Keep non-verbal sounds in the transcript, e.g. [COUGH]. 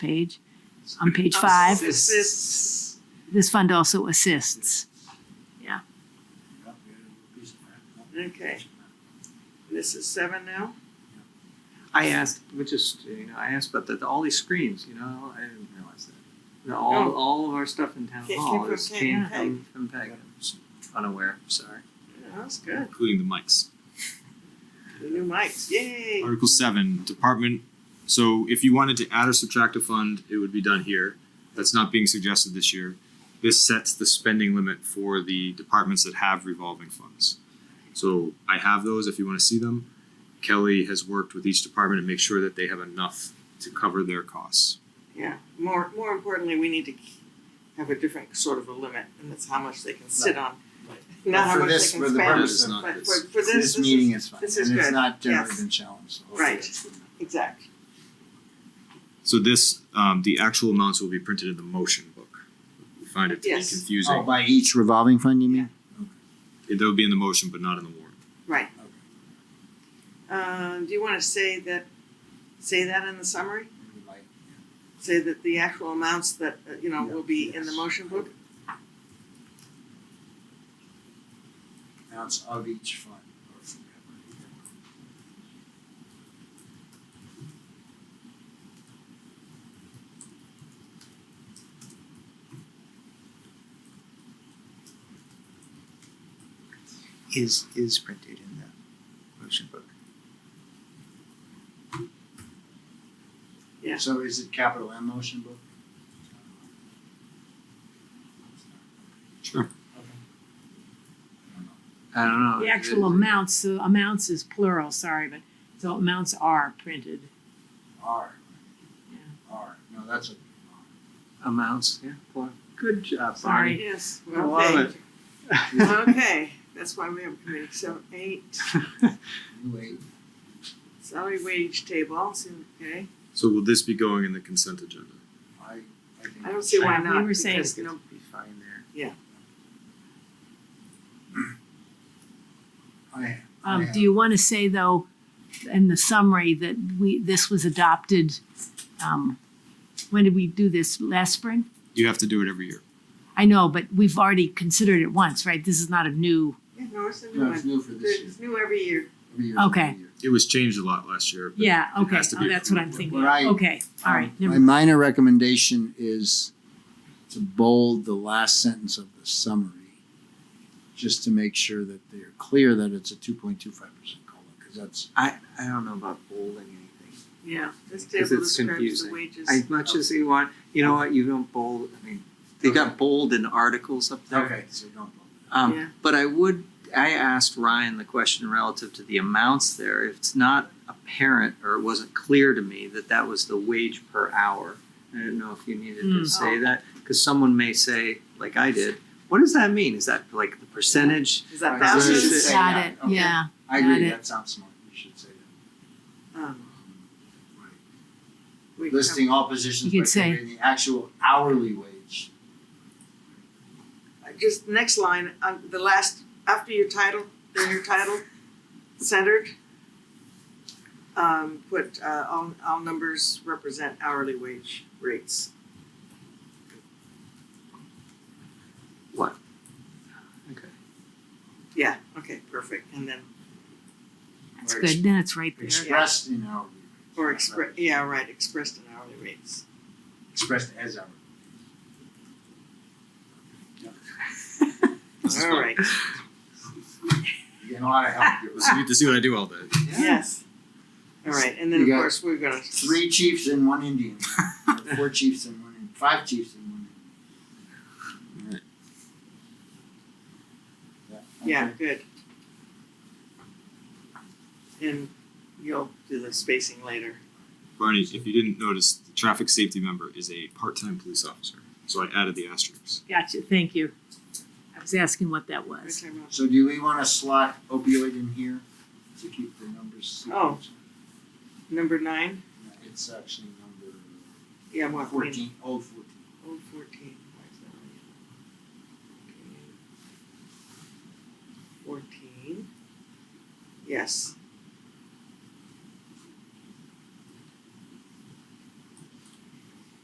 page, on page five. Assists. This fund also assists. Okay. This is seven now? I asked, which is, you know, I asked about the, all these screens, you know, I didn't realize that. You know, all, Oh. all of our stuff in town Came hall from is Peg, came huh? from, from Peg. I'm just Unaware, sorry. Yeah, That's good. including the mics. The new mics, yay! Article seven, department. So if you wanted to add or subtract a fund, it would be done here. That's not being suggested this year. This sets the spending limit for the departments that have revolving funds. So I have those if you want to see them. Kelly has worked with each department to make sure that they have enough to cover their costs. Yeah, more, more importantly, we need to k- have a different sort of a limit, and that's how much they can sit on. Not how For much they can this, for the spend, purpose of but this- for, for this, this this meeting is, is fine, this is and it's good, not generally yes. been challenged, so hopefully Right. it's good enough. exact, So this, um, the actual amounts will be printed in the motion book. We find it to be Yes. Oh, confusing. by each revolving fund, you mean? They'll be in the motion, but not in the warrant. right. Okay. Um, do you wanna say that, say that in the summary? Maybe like- Say that the actual amounts that, uh, you know, will be in the Yes. motion book? Amounts of each fund. Is, is printed in the motion book. Yeah. So is it capital M motion book? Sure. Okay. I don't know. I don't know. The It- actual it- amounts, the amounts is plural, sorry, but, so amounts are printed. R. Yeah. R, no, that's a. Amounts, yeah, Uh, well, good job, Sorry. Barney. Yes, I well, love thank it. you. [LAUGHS] Okay, that's why we have a committee, so eight, New eight. salary wage table, so, okay. So will this be going in the consent agenda? I, I think. I don't see why We not, were saying- because, It's gonna no, be fine there. I, I Um, have. do you want to say though, in the summary, that we, this was adopted, um, when did we do this? Last spring? You have to do it every year. I know, but we've already considered it once, right? This is not a new, yeah, no, it's a new No, it's one, new for this year. it's new every year. Every year is a new Okay. year. It was changed a lot last year. but yeah, it okay, has to oh, be that's what I'm approved. thinking. What I- Okay, all right, never My mind. minor recommendation is to bold the last sentence of the summary, just to make sure that they're clear that it's a two point two five percent COLA, because that's, I, I don't know about bolding anything. Yeah, this 'Cause table it's describes the confusing. wages. As much as you want, you know what, you don't bold, I mean, they got bold in articles up there. okay, so don't. Um, Yeah. But I would, I asked Ryan the question relative to the amounts there. If it's not apparent or it wasn't clear to me that that was the wage per hour, I didn't know if you needed Hmm. to say that because someone may say, like I did, what does that mean? Is that like the percentage? Is that Right. That's what it thousands? is. Got it, Okay. yeah, I Got agree, it. that sounds smart, you should say that. Um, Right. we can- Listing all positions, You by could say- the actual hourly wage. Just next line, um, the last, after your title, then your title, centered. Um, put, uh, all, all numbers represent hourly wage rates. Okay. Yeah, okay, perfect, and then, that's Or good, then it's right there. Expressed in hourly. wage, or not expre- yeah, right, expressed in hourly rates. Expressed as hourly. All right, You're Getting a lot of help here. So you get to see what I do all day. yes. All right, and then You of got course, we're gonna. Three chiefs and one Indian. [LAUGHS] Or Four chiefs and one, Indian. five chiefs and one Indian. Yeah, good. And you'll do the spacing later. Barney, if you didn't notice, the traffic safety member is a part-time police officer. So I added the asterisks. Gotcha, thank you. I was asking what that was. Right, time out. So do we wanna slot opioid in here to keep the numbers secret? Oh. Number nine, No, It's actually number yeah, what? fourteen, oh fourteen. Old fourteen, why is that on yellow? Okay. Fourteen. Yes,